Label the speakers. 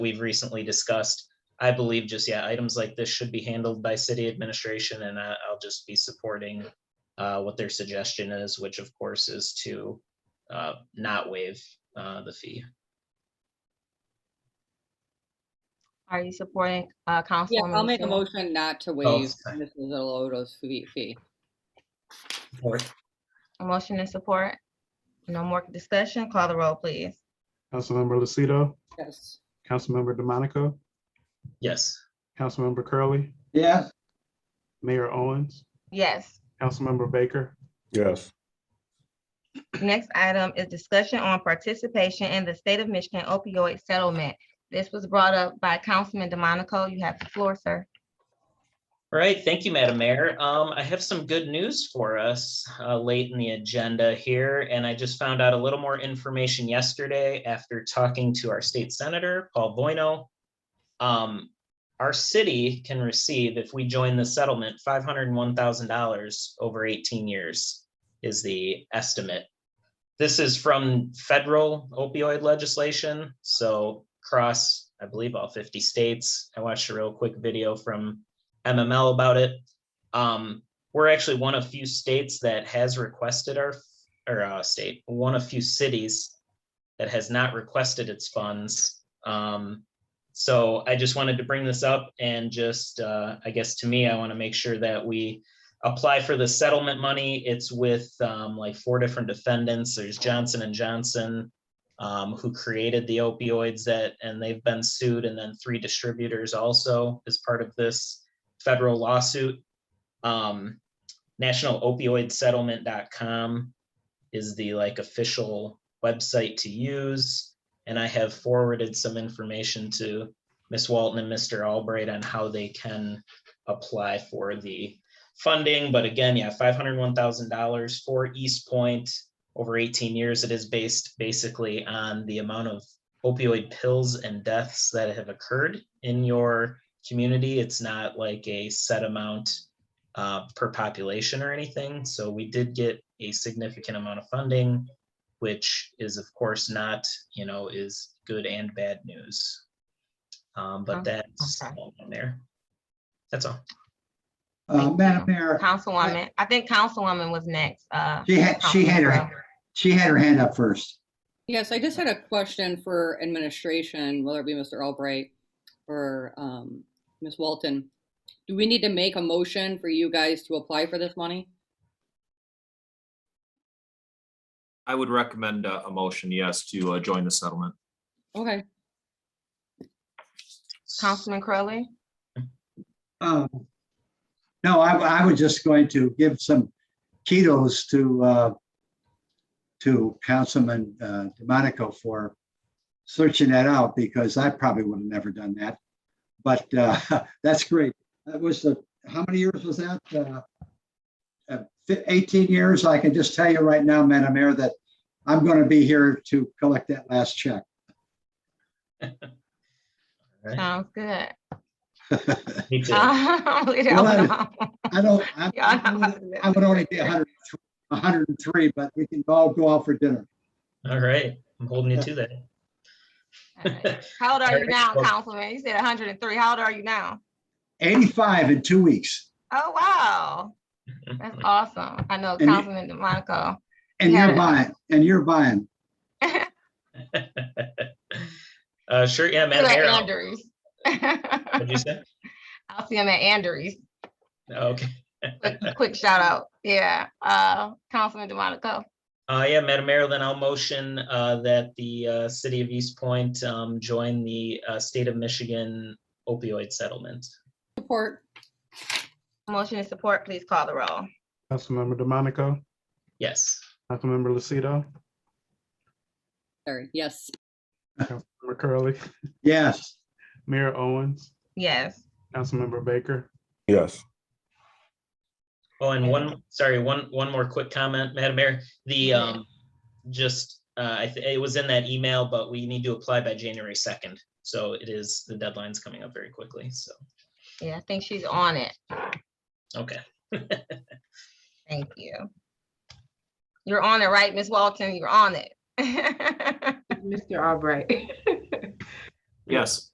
Speaker 1: we've recently discussed. I believe just, yeah, items like this should be handled by city administration and I, I'll just be supporting uh, what their suggestion is, which of course is to uh, not waive uh, the fee.
Speaker 2: Are you supporting, uh,
Speaker 3: Yeah,
Speaker 2: Councilwoman?
Speaker 3: I'll make a
Speaker 2: Lucero?
Speaker 3: motion not to waive
Speaker 1: sorry.
Speaker 3: Mrs. Zaloto's fee. fee.
Speaker 2: A Motion and support. No more discussion. Call the roll, please.
Speaker 4: Councilmember Lucido,
Speaker 3: Yes.
Speaker 4: Councilmember DeMonico,
Speaker 1: Yes,
Speaker 4: Councilmember Curley,
Speaker 5: yes,
Speaker 4: Mayor Owens,
Speaker 2: Yes.
Speaker 4: Councilmember Baker,
Speaker 6: yes,
Speaker 2: Next item is discussion on participation in the state of Michigan opioid settlement. This was brought up by Councilman DeMonico. You have the floor, sir.
Speaker 1: All right, thank you, Madam Mayor. Um, I have some good news for us uh, late in the agenda here, and I just found out a little more information yesterday after talking to our state senator, Paul Boino. Um, our city can receive, if we join the settlement, five hundred and one thousand dollars over eighteen years is the estimate. This is from federal opioid legislation, so across, I believe, all fifty states. I watched a real quick video from MML about it. Um, we're actually one of few states that has requested our, or uh, state, one of few cities that has not requested its funds. Um, so I just wanted to bring this up and just, uh, I guess to me, I want to make sure that we apply for the settlement money. It's with, um, like four different defendants. There's Johnson and Johnson, um, who created the opioids that, and they've been sued and then three distributors also as part of this federal lawsuit. Um, nationalopioidsettlement.com is the like official website to use. And I have forwarded some information to Ms. Walton and Mr. Albright on how they can apply for the funding. But again, yeah, five hundred one thousand dollars for East Point over eighteen years. It is based basically on the amount of opioid pills and deaths that have occurred in your community. It's not like a set amount uh, per population or anything. So we did get a significant amount of funding, which is of course not, you know, is good and bad news. Um,
Speaker 2: Oh,
Speaker 1: but that's
Speaker 2: okay.
Speaker 1: all on there. That's all.
Speaker 5: uh,
Speaker 2: Thank
Speaker 5: Madam
Speaker 2: you.
Speaker 5: Mayor,
Speaker 2: Councilwoman, I think Councilwoman was next. uh,
Speaker 5: she had, she had
Speaker 2: Councilwoman
Speaker 5: her,
Speaker 2: Grove.
Speaker 5: she had her hand up first.
Speaker 3: Yes, I just had a question for administration, whether it be Mr. Albright or um, Ms. Walton. Do we need to make a motion for you guys to apply for this money?
Speaker 7: I would recommend a, a motion, yes, to uh, join the settlement.
Speaker 3: Okay,
Speaker 2: Councilman Crowley?
Speaker 5: Um, No, I, I was just going to give some kudos to, uh, to Councilman uh, DeMonico for searching that out because I probably would have never done that. But uh, that's great. That was the, how many years was that? Uh, uh, fif- 18 years. I can just tell you right now, Madam Mayor, that I'm going to be here to collect that last check.
Speaker 1: Right.
Speaker 2: Sounds good.
Speaker 1: Me
Speaker 2: Uh,
Speaker 1: too.
Speaker 2: Leave it
Speaker 5: Well,
Speaker 2: alone.
Speaker 5: I don't, I'm-
Speaker 2: Y'all know
Speaker 5: I'm
Speaker 2: how
Speaker 5: gonna-
Speaker 2: to do
Speaker 5: I
Speaker 2: it.
Speaker 5: would only be 103, 103, but we can all go out for dinner.
Speaker 1: All right. I'm holding you to that.
Speaker 2: All right. How old are you
Speaker 1: Alright,
Speaker 2: now,
Speaker 1: well-
Speaker 2: Councilman? You said hundred and three. How old are you now?
Speaker 5: 85 in two weeks.
Speaker 2: Oh, wow. That's awesome. I know
Speaker 5: And you-
Speaker 2: Councilman DeMonico.
Speaker 5: And
Speaker 2: Yeah.
Speaker 5: you're buying, and you're buying.
Speaker 1: Uh, sure, yeah,
Speaker 2: You're
Speaker 1: Madam
Speaker 2: at
Speaker 1: Mayor. I'll-
Speaker 2: Andrews.
Speaker 1: What'd you say?
Speaker 2: I'll see him at Andrews.
Speaker 1: Okay.
Speaker 2: Quick, quick shout out. Yeah, uh, Councilman DeMonico.
Speaker 1: Uh, yeah, Madam Mayor, then I'll motion, uh, that the, uh, city of East Point, um, join the, uh, state of Michigan opioid settlement.
Speaker 3: support,
Speaker 2: Motion and support, please call the roll.
Speaker 4: Councilmember DeMonico,
Speaker 1: Yes.
Speaker 4: Councilmember Lucido,
Speaker 3: sorry, yes.
Speaker 4: Councilmember Curley,
Speaker 5: Yes,
Speaker 4: Mayor Owens,
Speaker 2: Yes.
Speaker 4: Councilmember Baker,
Speaker 6: yes,
Speaker 1: Oh, and one, sorry, one, one more quick comment, Madam Mayor. The, um, just, uh, I, thi- it was in that email, but we need to apply by January second. So it is, the deadline's coming up very quickly, so,
Speaker 2: Yeah, I think she's on it.
Speaker 1: okay.
Speaker 2: Thank you. You're on it, right, Ms. Walton? You're on it.
Speaker 8: Mr. Albright.
Speaker 7: Yes,